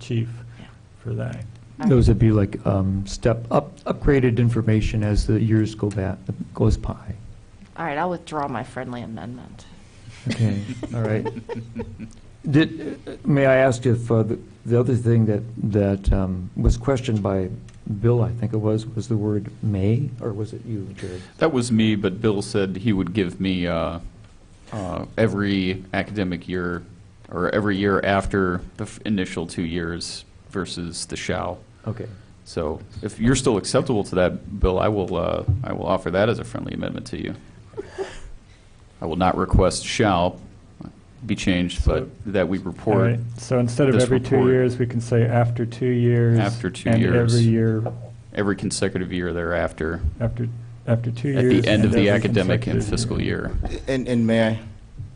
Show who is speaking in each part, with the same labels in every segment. Speaker 1: chief for that.
Speaker 2: Those would be like um, step, up upgraded information as the years go back, goes by.
Speaker 3: All right, I'll withdraw my friendly amendment.
Speaker 2: Okay, all right. Did, may I ask if, uh, the the other thing that, that um, was questioned by Bill, I think it was, was the word "may," or was it you, Jared?
Speaker 4: That was me, but Bill said he would give me uh, uh, every academic year, or every year after the f- initial two years versus the shall.
Speaker 2: Okay,
Speaker 4: So if you're still acceptable to that, Bill, I will, uh, I will offer that as a friendly amendment to you. I will not request shall be changed, but that we
Speaker 1: All
Speaker 4: report.
Speaker 1: right, so instead of
Speaker 4: This
Speaker 1: every two
Speaker 4: report.
Speaker 1: years, we can say after two years.
Speaker 4: After two
Speaker 1: And
Speaker 4: years.
Speaker 1: every year,
Speaker 4: every consecutive year thereafter
Speaker 1: after, after two
Speaker 4: at
Speaker 1: years.
Speaker 4: the end
Speaker 1: and
Speaker 4: of
Speaker 1: every
Speaker 4: the academic and
Speaker 1: consecutive
Speaker 4: fiscal year.
Speaker 5: And, and may I,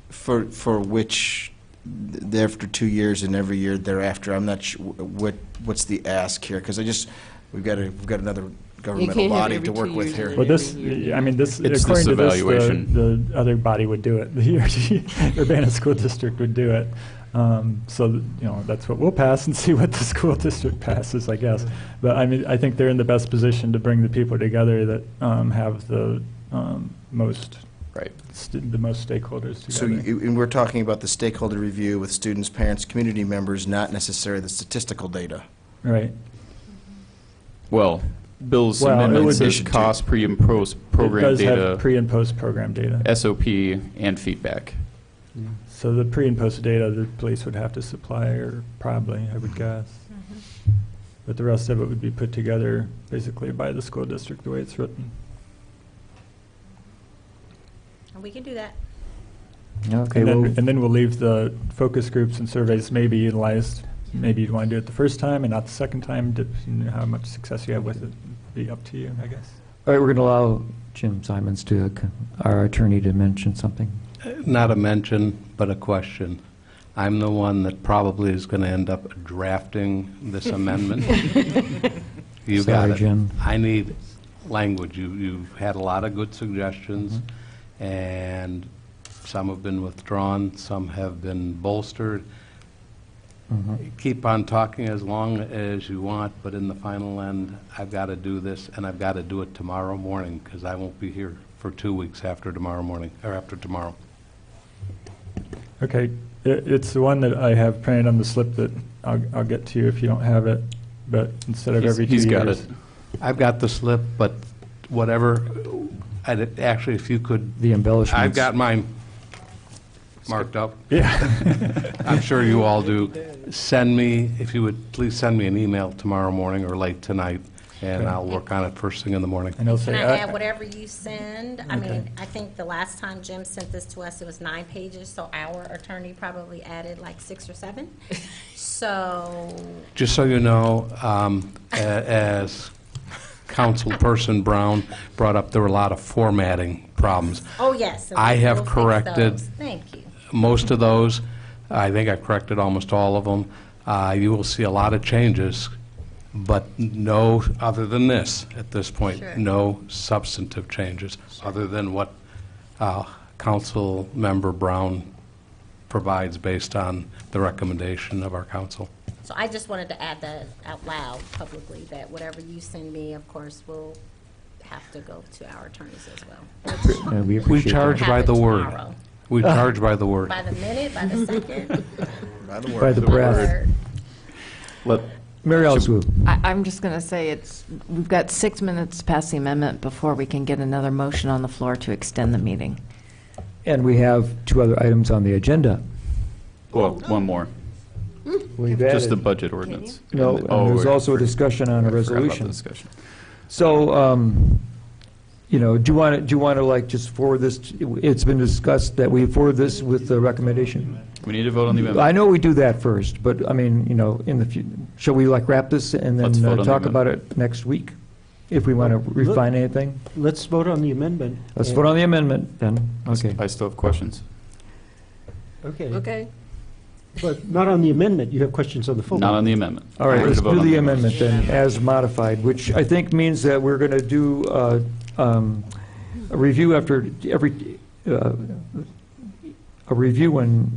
Speaker 5: for, for which, th- after two years and every year thereafter, I'm not sure what, what's the ask here? Because I just, we've got a, we've got another governmental
Speaker 3: can't have
Speaker 5: body
Speaker 3: every
Speaker 5: to
Speaker 3: two
Speaker 5: work with
Speaker 3: years
Speaker 5: here.
Speaker 3: and
Speaker 1: Well, this,
Speaker 3: Every
Speaker 1: I mean, this,
Speaker 4: It's this
Speaker 1: according to this, the,
Speaker 4: evaluation.
Speaker 1: the other body would do it. The URG Urbana School District would do it. Um, So, th- you know, that's what we'll pass and see what the school district passes, I guess. But I mean, I think they're in the best position to bring the people together that um, have the um, most,
Speaker 4: Right.
Speaker 1: st- the most stakeholders
Speaker 5: So,
Speaker 1: together.
Speaker 5: you- and we're talking about the stakeholder review with students, parents, community members, not necessarily the statistical data.
Speaker 1: Right.
Speaker 4: Well, Bill's
Speaker 1: Well, it
Speaker 4: amendment
Speaker 1: would be-
Speaker 4: says cost, pre and post program
Speaker 1: It does have
Speaker 4: data,
Speaker 1: pre and post program data.
Speaker 4: SOP, and feedback.
Speaker 1: So the pre and post data, the police would have to supply, or probably, I would guess.
Speaker 6: Mm-hmm.
Speaker 1: But the rest of it would be put together basically by the school district, the way it's written.
Speaker 6: We can do that.
Speaker 2: okay,
Speaker 1: And then,
Speaker 2: well,
Speaker 1: and then we'll leave the focus groups and surveys maybe utilized, maybe you'd want to do it the first time and not the second time, depending on how much success you have with it, be up to you, I guess.
Speaker 2: all right, we're going to allow Jim Simons to, uh, our attorney, to mention something.
Speaker 7: Not a mention, but a question. I'm the one that probably is going to end up drafting this amendment. You got
Speaker 2: Sorry,
Speaker 7: it.
Speaker 2: Jim.
Speaker 7: I need language. You- You've had a lot of good suggestions, and some have been withdrawn, some have been bolstered. Keep on talking as long as you want, but in the final end, I've got to do this, and I've got to do it tomorrow morning, because I won't be here for two weeks after tomorrow morning, or after tomorrow.
Speaker 1: Okay, i it's the one that I have printed on the slip that I'll, I'll get to you if you don't have it, but instead of
Speaker 4: He's-
Speaker 1: every two years.
Speaker 4: he's got it.
Speaker 7: I've got the slip, but whatever, I did- actually, if you could,
Speaker 2: The embellishments.
Speaker 7: I've got mine marked up.
Speaker 1: Yeah,
Speaker 7: I'm sure you all do. Send me, if you would, please send me an email tomorrow morning or late tonight, and I'll work on it first thing in the morning.
Speaker 1: and he'll say.
Speaker 6: Can
Speaker 7: uh,
Speaker 6: I add
Speaker 1: "Ah,
Speaker 6: whatever you send? I mean, I think the last time Jim sent this to us, it was nine pages, so our attorney probably added like six or seven. So,
Speaker 7: Just so you know, um, a- as Councilperson Brown brought up, there were a lot of formatting problems.
Speaker 6: oh, yes. and
Speaker 7: I have
Speaker 6: we'll fix
Speaker 7: corrected
Speaker 6: those. Thank you.
Speaker 7: most of those. I think I corrected almost all of them. Uh, You will see a lot of changes, but no, other than this, at this point,
Speaker 6: Sure.
Speaker 7: no substantive changes, other than what uh, Councilmember Brown provides based on the recommendation of our council.
Speaker 6: So I just wanted to add that out loud publicly, that whatever you send me, of course, will have to go to our attorneys as well. Which
Speaker 2: Yeah, we
Speaker 7: We
Speaker 2: appreciate that.
Speaker 7: charge by the word.
Speaker 6: Tomorrow.
Speaker 7: We charge by the word.
Speaker 6: By the minute, by the second,
Speaker 5: By the
Speaker 2: By
Speaker 5: way,
Speaker 2: the breath.
Speaker 6: or
Speaker 4: Let,
Speaker 2: Mary Alice Wu.
Speaker 3: I, I'm just going to say it's, we've got six minutes to pass the amendment before we can get another motion on the floor to extend the meeting.
Speaker 2: And we have two other items on the agenda.
Speaker 4: well, one more,
Speaker 2: We've
Speaker 4: just the
Speaker 2: added-
Speaker 4: budget ordinance.
Speaker 2: No,
Speaker 4: And-
Speaker 2: and
Speaker 4: oh,
Speaker 2: there's
Speaker 4: I
Speaker 2: also a discussion on a
Speaker 4: forgot about the
Speaker 2: resolution.
Speaker 4: discussion.
Speaker 2: So, um, you know, do you want to, do you want to like just forward this, to- it's been discussed that we forward this with the recommendation?
Speaker 4: We need to vote on the
Speaker 2: I
Speaker 4: amendment.
Speaker 2: know we do that first, but I mean, you know, in the, fu- shall we like wrap this and
Speaker 4: Let's
Speaker 2: then
Speaker 4: vote on
Speaker 2: uh,
Speaker 4: the
Speaker 2: talk
Speaker 4: amendment.
Speaker 2: about it next week? If we want to refine anything?
Speaker 8: Let's vote on the amendment.
Speaker 2: Let's vote on the amendment then, okay.
Speaker 4: I still have questions.
Speaker 8: Okay,
Speaker 3: Okay.
Speaker 8: but not on the amendment, you have questions on the full.
Speaker 4: Not on
Speaker 8: one.
Speaker 4: the amendment.
Speaker 2: All right,
Speaker 4: We're
Speaker 2: let's
Speaker 4: gonna vote
Speaker 2: do
Speaker 4: on
Speaker 2: the amendment then, as modified, which I think means that we're going to do uh, um, a review after every, uh, a review in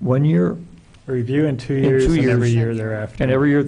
Speaker 2: one year,
Speaker 1: Review in two
Speaker 2: In
Speaker 1: years
Speaker 2: two
Speaker 1: and every
Speaker 2: years.
Speaker 1: year thereafter.
Speaker 2: and every year